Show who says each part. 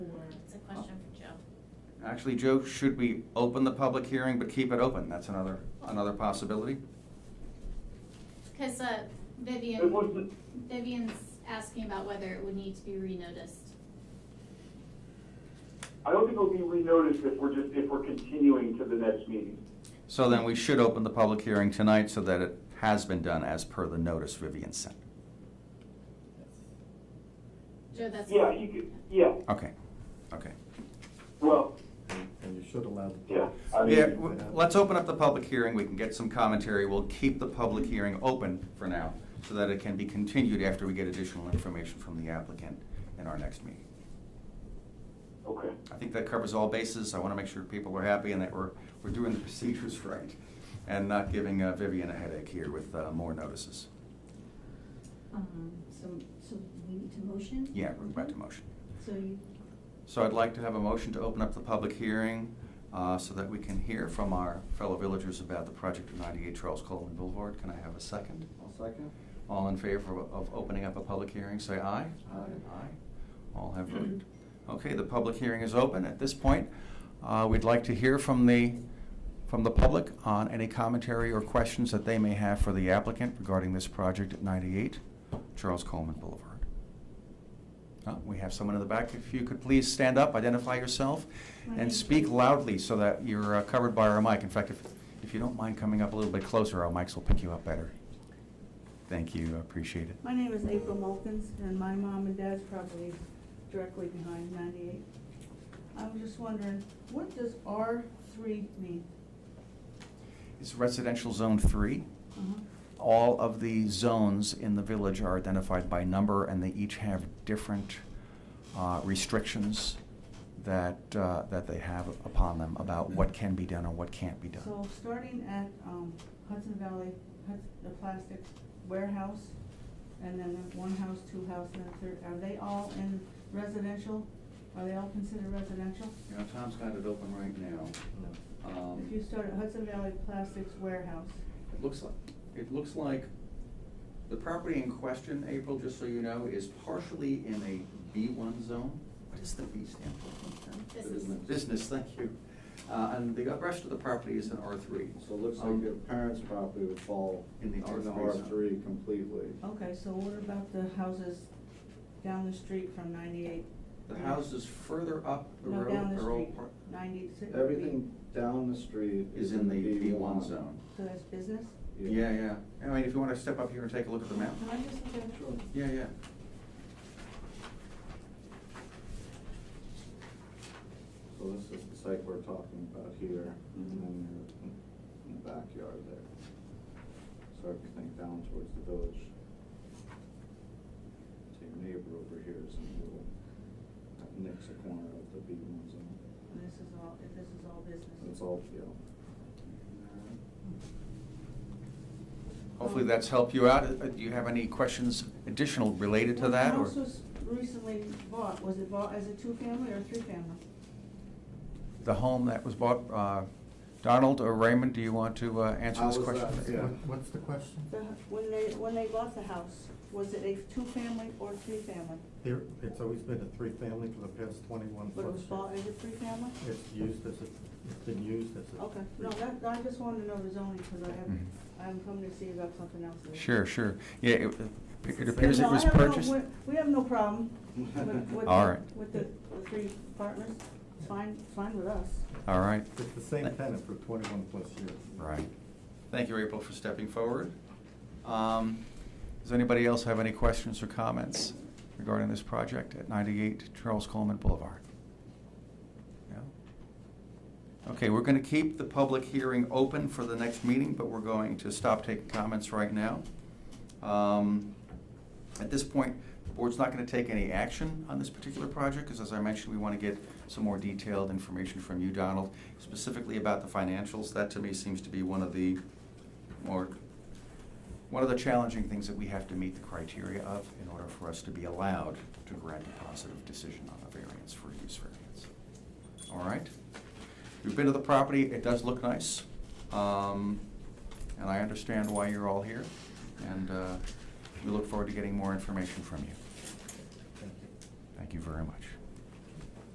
Speaker 1: Actually, Joe, should we open the public hearing but keep it open? That's another, another possibility.
Speaker 2: Because uh,
Speaker 3: It
Speaker 2: Vivian,
Speaker 3: wasn't,
Speaker 2: Vivian's asking about whether it would need to be renoticed.
Speaker 3: I don't think it'll be renoticed if we're just, if we're continuing to the next meeting.
Speaker 1: So then we should open the public hearing tonight so that it has been done as per the notice Vivian sent.
Speaker 2: Joe, that's.
Speaker 3: Yeah, you could, yeah,
Speaker 1: Okay, okay.
Speaker 3: well,
Speaker 4: And you should allow the.
Speaker 3: yeah. I mean,
Speaker 1: Yeah, w- let's open up the public hearing, we can get some commentary, we'll keep the public hearing open for now, so that it can be continued after we get additional information from the applicant in our next meeting.
Speaker 3: Okay,
Speaker 1: I think that covers all bases, I want to make sure people are happy and that we're, we're doing the procedures right, and not giving uh, Vivian a headache here with uh, more notices.
Speaker 5: Um, so, so we need to motion?
Speaker 1: Yeah, we're about to motion.
Speaker 5: So you,
Speaker 1: So I'd like to have a motion to open up the public hearing, uh, so that we can hear from our fellow villagers about the project of ninety-eight Charles Coleman Boulevard, can I have a second?
Speaker 4: second.
Speaker 1: All in favor of- of opening up a public hearing, say aye.
Speaker 4: Aye.
Speaker 1: Aye. All have voted. Okay, the public hearing is open. At this point, uh, we'd like to hear from the, from the public on any commentary or questions that they may have for the applicant regarding this project at 98 Charles Coleman Boulevard. Uh, We have someone in the back. If you could please stand up, identify yourself,
Speaker 5: My
Speaker 1: and
Speaker 5: name's
Speaker 1: speak
Speaker 5: Judy.
Speaker 1: loudly so that you're uh, covered by our mic. In fact, if, if you don't mind coming up a little bit closer, our mics will pick you up better. Thank you, I appreciate it.
Speaker 6: My name is April Mulkins, and my mom and dad's property directly behind ninety-eight. I'm just wondering, what does R three mean?
Speaker 1: It's residential zone three.
Speaker 6: Uh-huh.
Speaker 1: All of the zones in the village are identified by number, and they each have different uh, restrictions that, uh, that they have upon them about what can be done and what can't be done.
Speaker 6: So starting at um, Hudson Valley, Hudson, the plastics warehouse, and then the one house, two house, and then third, are they all in residential? Are they all considered residential?
Speaker 1: You know, Tom's got it open right now. Um,
Speaker 6: If you start at Hudson Valley Plastics Warehouse,
Speaker 1: It looks like, it looks like the property in question, April, just so you know, is partially in a B one zone. What does the B stand for?
Speaker 2: Business.
Speaker 1: Business, thank you. Uh, and the rest of the property is in R three. Um,
Speaker 4: So it looks like your parents' property would fall
Speaker 1: In
Speaker 4: in
Speaker 1: the
Speaker 4: the
Speaker 1: R3
Speaker 4: R
Speaker 1: zone.
Speaker 4: three completely.
Speaker 6: okay, so what about the houses down the street from ninety-eight?
Speaker 1: The houses further up the
Speaker 6: No,
Speaker 1: road
Speaker 6: down the
Speaker 1: are all
Speaker 6: street,
Speaker 1: par-
Speaker 6: ninety-six.
Speaker 4: Everything down the street
Speaker 1: is in the B one zone.
Speaker 6: So that's business?
Speaker 1: Yeah, yeah. I mean, if you wanna step up here and take a look at the map.
Speaker 6: Can I just look at it?
Speaker 4: Sure.
Speaker 1: Yeah, yeah.
Speaker 4: So this is the site we're talking about here, and then you're in- in the backyard there. So everything down towards the village. So your neighbor over here is in the little, that next corner of the B one zone.
Speaker 6: And this is all, this is all business?
Speaker 4: And It's all, yeah.
Speaker 6: Oh.
Speaker 1: Hopefully that's helped you out. Uh, Do you have any questions additional related to that or?
Speaker 6: What house was recently bought, was it bought as a two-family or a three-family?
Speaker 1: the home that was bought, uh, Donald or Raymond, do you want to uh, answer
Speaker 4: I
Speaker 1: this
Speaker 4: was,
Speaker 1: question?
Speaker 4: uh, yeah.
Speaker 7: What's the question?
Speaker 6: The, hu- when they, when they bought the house, was it a two-family or three-family?
Speaker 7: There, it's always been a three-family for the past twenty-one
Speaker 6: But
Speaker 7: plus.
Speaker 6: it was bought as a three-family?
Speaker 7: It's used as a, it's been used as a.
Speaker 6: Okay, no, that, I just wanted to know the zoning, because I have,
Speaker 1: Mhm.
Speaker 6: I'm coming to see you about something else. later.
Speaker 1: Sure, sure. Yeah, it- it
Speaker 6: No,
Speaker 1: appears it
Speaker 6: I
Speaker 1: was
Speaker 6: have no-
Speaker 1: purchased.
Speaker 6: we- We have no problem with, with
Speaker 1: All
Speaker 6: the-
Speaker 1: right.
Speaker 6: with the, the three partners, it's fine, it's fine with us.
Speaker 1: All right,
Speaker 7: It's the same tenant for twenty-one plus years.
Speaker 1: right. Thank you, April, for stepping forward. Um, Does anybody else have any questions or comments regarding this project at 98 Charles Coleman Boulevard? No? Okay, we're going to keep the public hearing open for the next meeting, but we're going to stop taking comments right now. Um, At this point, the board's not gonna take any action on this particular project, because as I mentioned, we wanna get some more detailed information from you, Donald, specifically about the financials. That to me seems to be one of the more, one of the challenging things that we have to meet the criteria of in order for us to be allowed to grant a positive decision on a variance for a use variance. All right? We've been to the property, it does look nice. Um, and I understand why you're all here, and uh, we look forward to getting more information from you.
Speaker 7: Thank you.
Speaker 1: Thank you very much.